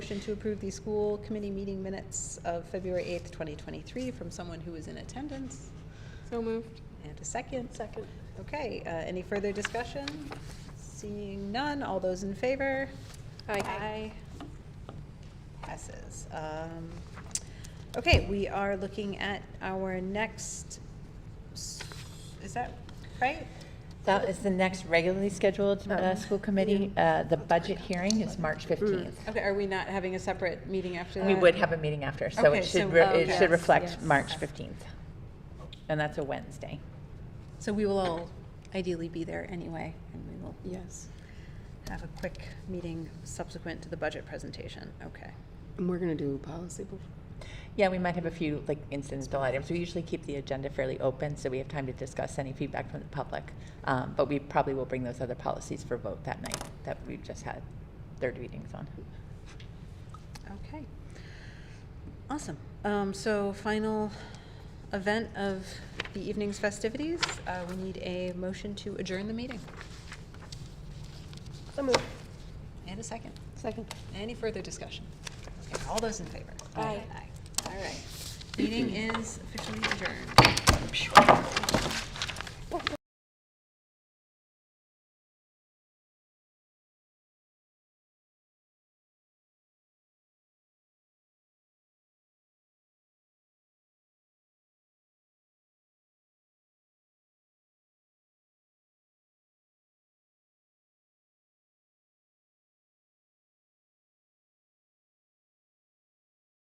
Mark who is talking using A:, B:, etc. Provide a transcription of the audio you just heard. A: motion to approve the school committee meeting minutes of February 8th, 2023 from someone who was in attendance.
B: So moved.
A: And a second? Second. Okay, uh, any further discussion? Seeing none, all those in favor?
B: Aye.
A: Passes. Um, Okay, we are looking at our next, s- is that right?
C: That is the next regularly scheduled
A: Oh.
C: uh, school committee. Uh, The budget hearing is
A: Mm.
C: March 15th.
A: Okay, are we not having a separate meeting after that?
C: We would have a meeting after, so
A: Okay,
C: it
A: so-
C: should, re-
A: oh,
C: it
A: yes,
C: should reflect
A: yes.
C: March 15th. And that's a Wednesday.
A: So we will all ideally be there anyway, and we will
B: Yes.
A: have a quick meeting subsequent to the budget presentation. Okay.
B: And we're going to do policy before.
C: Yeah, we might have a few, like, incidental items. We usually keep the agenda fairly open, so we have time to discuss any feedback from the public. Um, But we probably will bring those other policies for vote that night that we've just had third readings on.
A: Okay. Awesome. Um, so final event of the evening's festivities, uh, we need a motion to adjourn the meeting.
B: So moved.
A: And a second.
B: Second.
A: Any further discussion? Okay, all those in favor?
B: Aye.
A: Aye. All right. Meeting is officially adjourned.